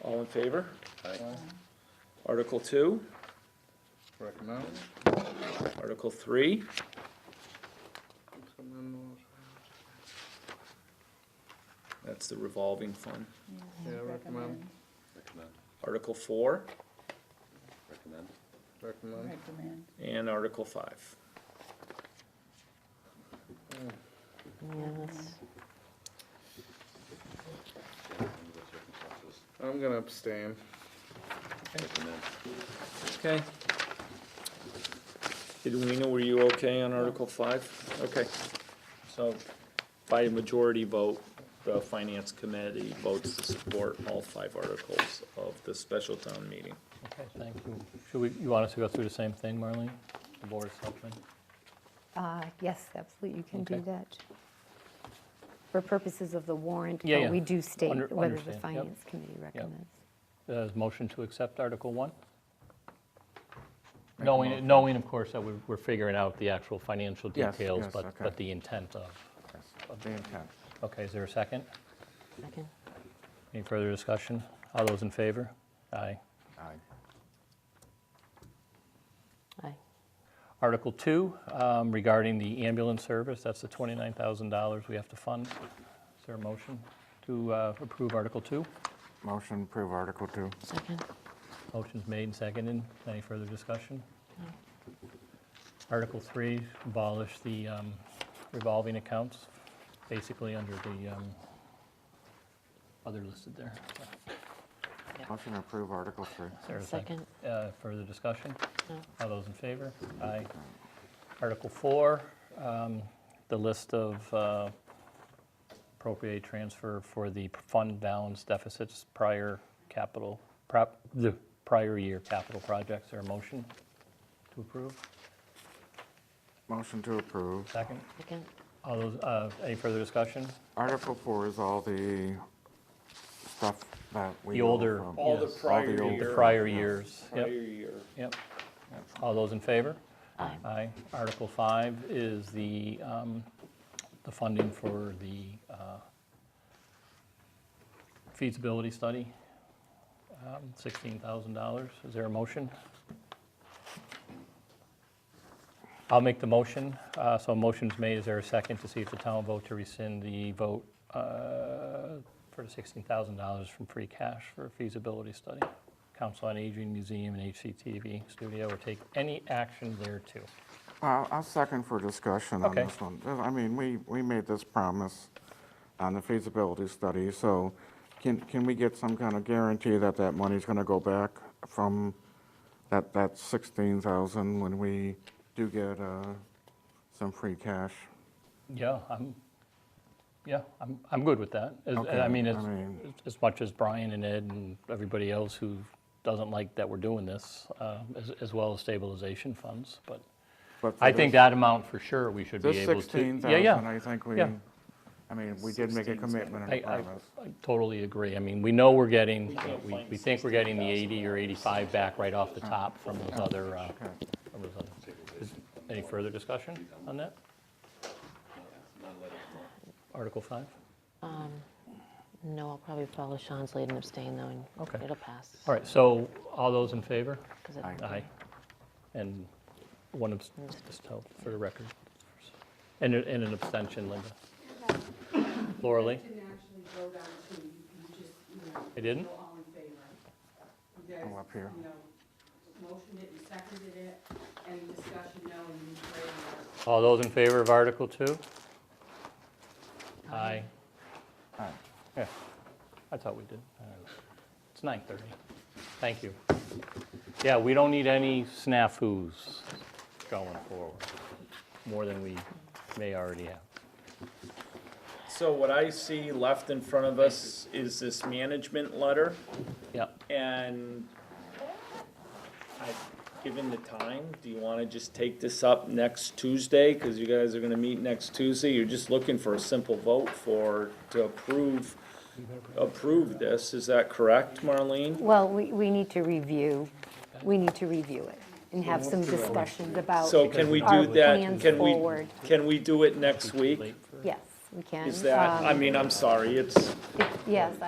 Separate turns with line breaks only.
All in favor?
Aye.
Article two,
Recommend.
article three, that's the revolving fund.
Yeah, recommend,
Recommend,
Article four
recommend,
recommend.
Recommend.
and article five.
yeah, under the circumstances,
I'm gonna abstain.
recommend.
Okay. Edwina, were you okay on article five? Okay. So by a majority vote, the finance committee votes to support all five articles of the special town meeting.
Okay, thank you. Should we, you want us to go through the same thing, Marlene? The Board of Selectmen?
Uh, Yes, absolutely, you can do
Okay.
that. For purposes of the warrant,
Yeah,
but
yeah.
we do
Under-
state whether the
understand, yep.
Finance Committee recommends.
Uh, Motion to accept Article 1? Knowing, knowing, of course, that we're we're figuring out the actual financial
Yes,
details,
yes,
but,
okay.
but the intent of,
The intent.
okay, is there a second?
Second.
Any further discussion? All those in favor? Aye.
Aye.
Aye.
Article 2, um, regarding the ambulance service, that's the $29,000 we have to fund. Is there a motion to uh, approve Article 2?
Motion approve Article Two.
Second.
Motion's made and seconded. Any further discussion? Article 3, abolish the um, revolving accounts, basically under the um, other listed there.
Motion to approve Article Three.
Is there a sec- uh, Further discussion?
No.
All those in favor? Aye. Article 4, um, the list of uh, appropriate transfer for the fund balance deficits prior capital, prop- the prior year capital projects. Or a motion to approve?
Motion to approve.
Second?
Second.
All those, uh, any further discussion?
Article Four is all the stuff that we.
The
owe
older,
from-
All the
yes,
prior
old-
the
year.
prior years.
Prior
Yep,
year.
yep. All those in favor? Aye. Article five is the, um, the funding for the uh, feasibility study, um, $16,000. Is there a motion? I'll make the motion. Uh, So a motion's made. Is there a second to see if the town vote to rescind the vote uh, for the $16,000 from free cash for a feasibility study? Council on Aging Museum and HCTV Studio or take any action thereto.
Uh, I'll second for discussion on
Okay.
this one. I mean, we, we made this promise on the feasibility study, so can, can we get some kind of guarantee that that money's gonna go back from that, that 16,000 when we do get uh, some free cash?
Yeah, I'm, yeah, I'm, I'm good with that. As- and I
Okay,
mean,
I
as,
mean-
as much as Brian and Ed and everybody else who doesn't like that we're doing this, uh, as, as well as stabilization funds, but
But for
I think
this-
that amount for sure we should be
This
able to. Yeah,
16,000,
yeah.
I think we,
yeah.
I mean, we did make a
16,000.
commitment and
I,
a
I,
promise.
I totally agree. I mean, we know we're getting,
can't
we,
find
we think we're getting the 80 or 85 back right off the top from those other, uh,
Oh, Okay.
from those other. Is- Any further discussion on that? Article 5?
Um, No, I'll probably follow Sean's lead and abstain, though, and
Okay.
it'll pass.
All right, so all those in favor?
'cause it-
Aye.
Aye. And one abstention, just tell for the record. And, a- and an abstention, Linda. Laura Lee?
You can actually go down to, you can just, you know,
I didn't?
go all in favor. You guys,
Oh, up here.
you know, motioned it, you seconded it, any discussion, no, and you raised it.
All those in favor of Article 2? Aye.
Aye.
Yeah, I thought we did. I don't know. It's 9:30. Thank you. Yeah, we don't need any snafus going forward, more than we may already have.
So what I see left in front of us is this management letter.
Yeah,
And I, given the time, do you wanna just take this up next Tuesday? Cause you guys are gonna meet next Tuesday, you're just looking for a simple vote for, to approve, approve this, is that correct, Marlene?
Well, we, we need to review, we need to review it and have some discussions about
So can we
our
do that,
plans
can we,
forward.
can we do it next week?
Yes, we can.
Is that, I
Um,
mean, I'm sorry, it's.
Yes,